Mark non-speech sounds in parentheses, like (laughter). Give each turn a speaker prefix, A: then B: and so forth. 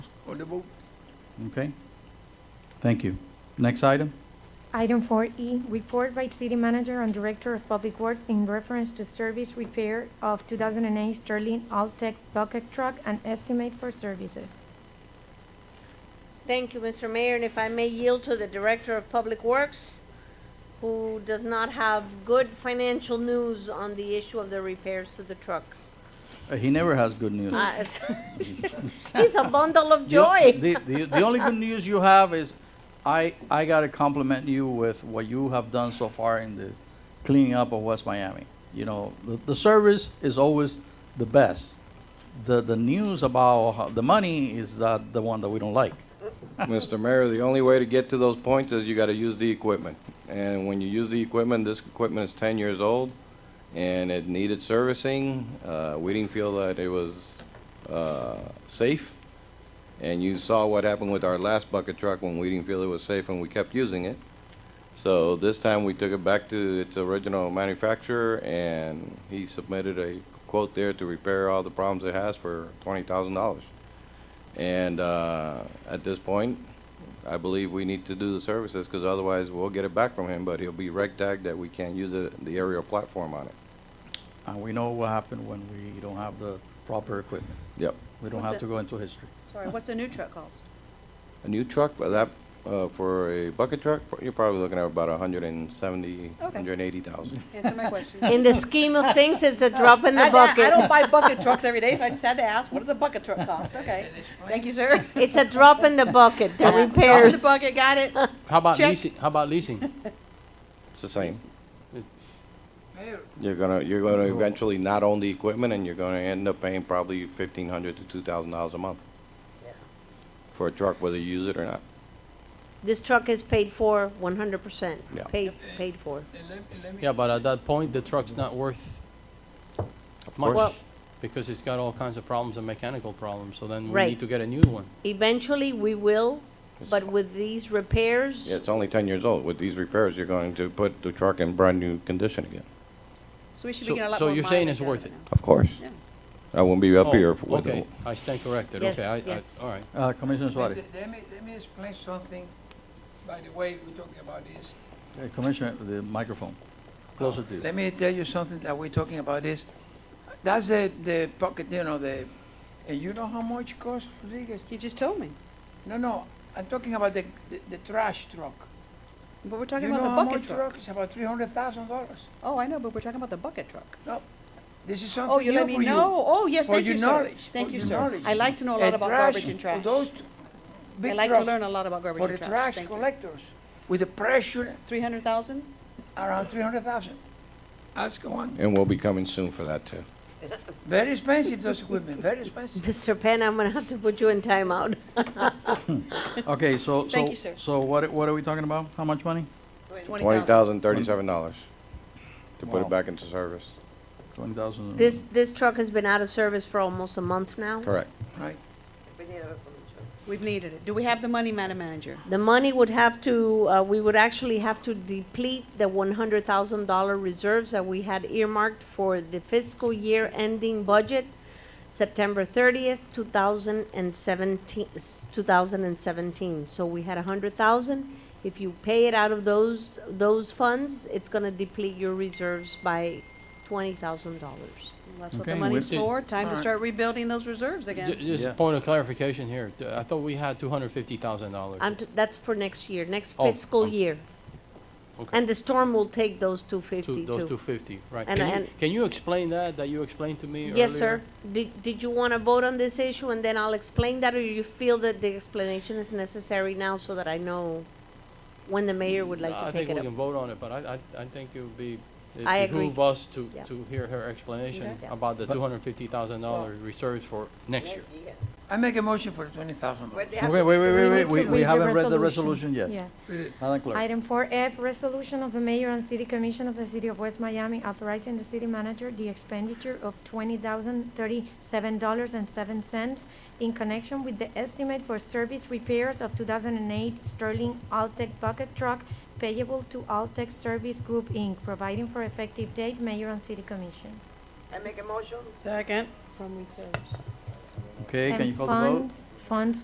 A: for the vote.
B: Okay? Thank you. Next item?
C: Item four E, report by city manager and director of public works in reference to service repair of two thousand and eight Sterling Altech bucket truck and estimate for services.
D: Thank you, Mr. Mayor, and if I may yield to the Director of Public Works, who does not have good financial news on the issue of the repairs to the truck.
B: Uh, He never has good news.
D: Uh, it's- (laughs) He's a bundle of
B: The o-
D: joy.
B: The, the, the only good news you have is, I, I gotta compliment you with what you have done so far in the cleaning up of West Miami. You know, the, the service is always the best. The, the news about how- the money is uh, the one that we don't like.
E: Mr. Mayor, the only way to get to those points is you gotta use the equipment. And when you use the equipment, this equipment is ten years old, and it needed servicing. Uh, we didn't feel that it was, uh, safe. And you saw what happened with our last bucket truck when we didn't feel it was safe and we kept using it. So this time, we took it back to its original manufacturer, and he submitted a quote there to repair all the problems it has for twenty thousand dollars. And uh, at this point, I believe we need to do the services because otherwise we'll get it back from him, but he'll be reg tagged that we can't use it- the aerial platform on it.
B: And we know what happened when we don't have the proper equipment.
E: Yep.
B: We don't
F: What's
B: have to
F: it?
B: go into history.
F: Sorry, what's a new truck cost?
E: A new truck, but that, uh, for a bucket truck, you're probably looking at about 170,
F: Okay.
E: 180,000.
F: Answer my
A: (laughs)
F: question.
D: In the scheme of things, it's a drop in
F: I-
D: the
F: I- I
D: bucket.
F: don't buy bucket trucks every day, so I just had to ask, what does a bucket truck cost? Okay, thank you,
A: (laughs)
F: sir.
D: It's a drop in the bucket, the
F: Drop in The
D: repairs.
F: bucket, got it.
G: How about
F: Check.
G: leasing, how
D: (laughs)
G: about leasing?
E: It's the same.
A: Mayor,
E: You're gonna, you're gonna eventually not own the equipment and you're gonna end up paying probably 1,500 to $2,000 a month for a truck, whether you use it or not.
D: This truck is paid for one hundred percent,
E: Yeah.
D: paid, paid for.
A: and let, and let me.
G: Yeah, but at that point, the truck's not worth
E: Of
G: much
E: course,
G: because it's got all kinds of problems and mechanical problems, so then we
D: Right.
G: need to get a new one.
D: Eventually, we will,
E: It's-
D: but with these repairs,
E: Yeah, it's only 10 years old. With these repairs, you're going to put the truck in brand-new condition again.
F: So we should be
G: So-
F: getting a lot
G: so
F: more
G: you're saying
F: mileage
G: it's
F: out
G: worth
F: of
G: it?
F: now.
E: Of course.
F: Yeah.
E: I won't be up
G: Oh,
E: here with
G: Okay,
E: it.
G: I stand corrected,
D: Yes,
G: okay, I, I,
D: yes.
G: all right.
B: Uh, Commissioner
A: Let
B: Suarez,
A: me, let me- let me explain something, by the way, we're talking about this.
B: Uh, Commissioner, the microphone, closer to you.
A: Let me tell you something that we're talking about this. That's the, the pocket, you know, the, and you know how much cost, Rodriguez?
F: You just told me,
A: No, no, I'm talking about the, the, the trash truck.
F: but we're talking
A: You
F: about
A: know
F: the
A: how much
F: bucket truck.
A: It's about three hundred thousand dollars.
F: Oh, I know, but we're talking about the bucket truck.
A: No, this is
F: Oh,
A: something
F: you
A: new
F: let
A: for
F: me
A: you.
F: know. Oh, yes,
A: For
F: thank
A: your
F: you, sir.
A: knowledge,
F: Thank
A: for
F: you,
A: your
F: sir.
A: knowledge.
F: I like to know a lot about garbage and trash.
A: Those t-
F: I
A: big
F: like to
A: trucks
F: learn a lot about garbage
A: for
F: and
A: the
F: trash.
A: trash
F: Thank you.
A: collectors with the pressure
F: Three hundred thousand?
A: around three hundred thousand. Ask one.
E: And we'll be coming soon for that, too.
A: Very expensive those equipment. Very expensive.
D: Mr. Penn, I'm gonna have to put you in timeout.
B: Okay, so,
F: Thank
B: so,
F: you, sir.
B: so what, what are we talking about? How much money?
E: Twenty thousand, thirty-seven dollars to put
B: Wow.
E: it back into service.
B: Twenty thousand?
D: This, this truck has been out of service for almost a month now.
E: Correct.
A: Right.
F: We've needed it. Do we have the money, Madam Manager?
D: The money would have to, uh, we would actually have to deplete the one hundred thousand dollar reserves that we had earmarked for the fiscal year ending budget, September thirtieth, two thousand and seventeen, two thousand and seventeen. So we had a hundred thousand. If you pay it out of those, those funds, it's gonna deplete your reserves by twenty thousand dollars.
F: That's what
B: Okay,
F: the
B: we-
F: money's for. Time to
D: Alright.
F: start rebuilding those reserves again.
G: Ju- Just
B: Yeah.
G: a point of clarification here, Th- I thought we had two hundred fifty thousand dollars.
D: I'm, t- that's for next year, next
G: Oh,
D: fiscal
G: um,
D: year.
G: okay.
D: And the storm will take those two fifty
G: Those two
D: too.
G: fifty, right.
D: And-
G: Can you,
D: and-
G: can you explain that, that you explained to me earlier?
D: Yes, sir. Did, did you want to vote on this issue and then I'll explain that, or you feel that the explanation is necessary now so that I know when the mayor would like to
G: I
D: take
G: think
D: it
G: we
D: up?
G: can vote on it, but I, I, I think it would be,
D: I
G: it
D: agree.
G: behoove us to,
D: Yeah.
G: to hear her explanation
D: Okay. Yeah.
G: about the two hundred fifty thousand dollar reserves for next year.
A: I make a motion for twenty thousand dollars.
B: Okay, wait, wait, wait,
C: We
B: wait,
C: need to
B: we, we
C: read the
B: haven't read the resolution yet.
C: Yeah.
B: Madam Clerk.
C: Item four F, resolution of the mayor and city commission of the city of West Miami authorizing the city manager the expenditure of twenty thousand thirty-seven dollars and seven cents in connection with the estimate for service repairs of two thousand and eight Sterling Altech bucket truck payable to Altech Service Group, Inc., providing for effective date, mayor and city commission.
F: Second.
D: From reserves.
B: Okay, can
C: And
B: you call the vote?
C: funds- Funds